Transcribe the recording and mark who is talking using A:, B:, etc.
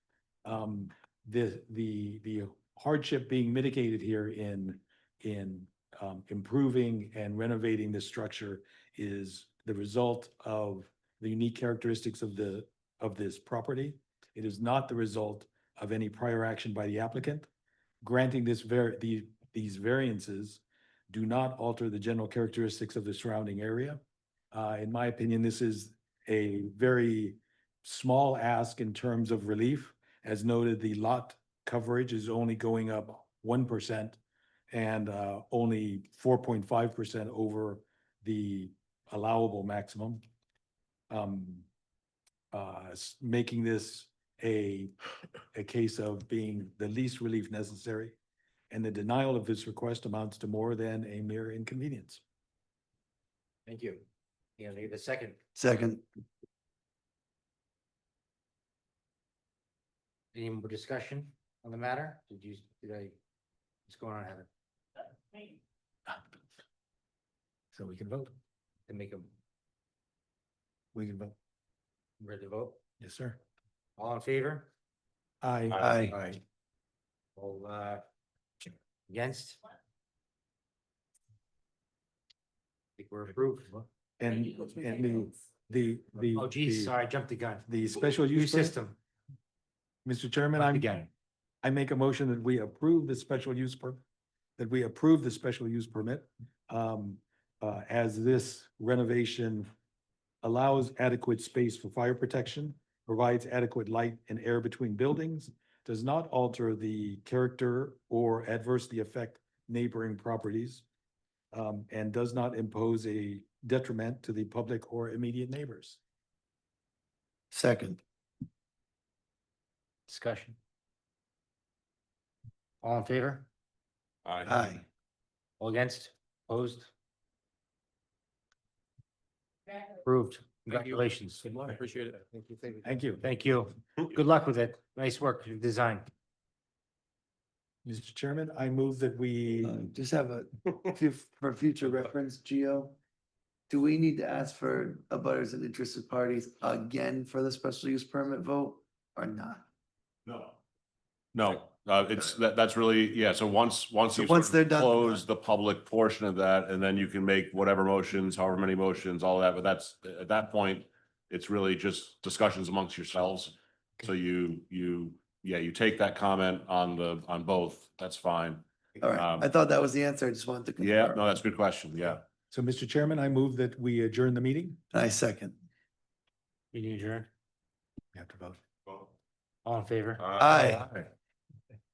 A: um, the, the, the hardship being mitigated here in, in, um, improving and renovating this structure is the result of the unique characteristics of the, of this property. It is not the result of any prior action by the applicant. Granting this var, the, these variances do not alter the general characteristics of the surrounding area. Uh, in my opinion, this is a very small ask in terms of relief. As noted, the lot coverage is only going up one percent and uh, only four point five percent over the allowable maximum. Um, uh, s- making this a, a case of being the least relief necessary. And the denial of this request amounts to more than a mere inconvenience.
B: Thank you. You need a second.
C: Second,
B: Any more discussion on the matter? Did you, did I, what's going on, Heather?
A: So we can vote.
B: To make them
A: We can vote.
B: ready to vote?
A: Yes, sir.
B: All in favor?
A: Aye.
C: Aye.
B: Aye. All, uh, against? I think we're approved.
A: And, and the, the, the.
B: Oh geez,
A: the-
B: sorry, I jumped the gun.
A: The special use. permit-
B: system.
A: Mr. Chairman, I'm,
B: Again.
A: I make a motion that we approve the special use per, that we approve the special use permit. Um, uh, as this renovation allows adequate space for fire protection, provides adequate light and air between buildings, does not alter the character or adversely affect neighboring properties, um, and does not impose a detriment to the public or immediate neighbors.
C: second,
B: Discussion. All in favor?
C: aye,
B: All against? Opposed? Approved. Congratulations. Good luck. Appreciate it. Thank you.
A: Thank you.
B: Thank you. Good luck with it. Nice work, your design.
A: Mr. Chairman, I move that we,
C: Uh, Just have a, fu- for future reference, Geo. Do we need to ask for abutters and interested parties again for the special use permit vote or not?
D: No. No, uh, it's, that, that's really, yeah, so once, once
C: So
D: you
C: once
D: sort of
C: they're done-
D: Close the public portion of that, and then you can make whatever motions, however many motions, all that, but that's, at that point, it's really just discussions amongst yourselves. So you, you, yeah, you take that comment on the, on both, that's fine.
C: All right,
D: Um,
C: I thought that was the answer. I just wanted to.
D: Yeah,
C: confirm.
D: no, that's a good question, yeah.
A: so Mr. Chairman, I move that we adjourn the meeting.
C: I second.
B: Meeting adjourned.
A: You have to vote.
B: All in favor?
D: Uh,
C: Aye.
D: Aye.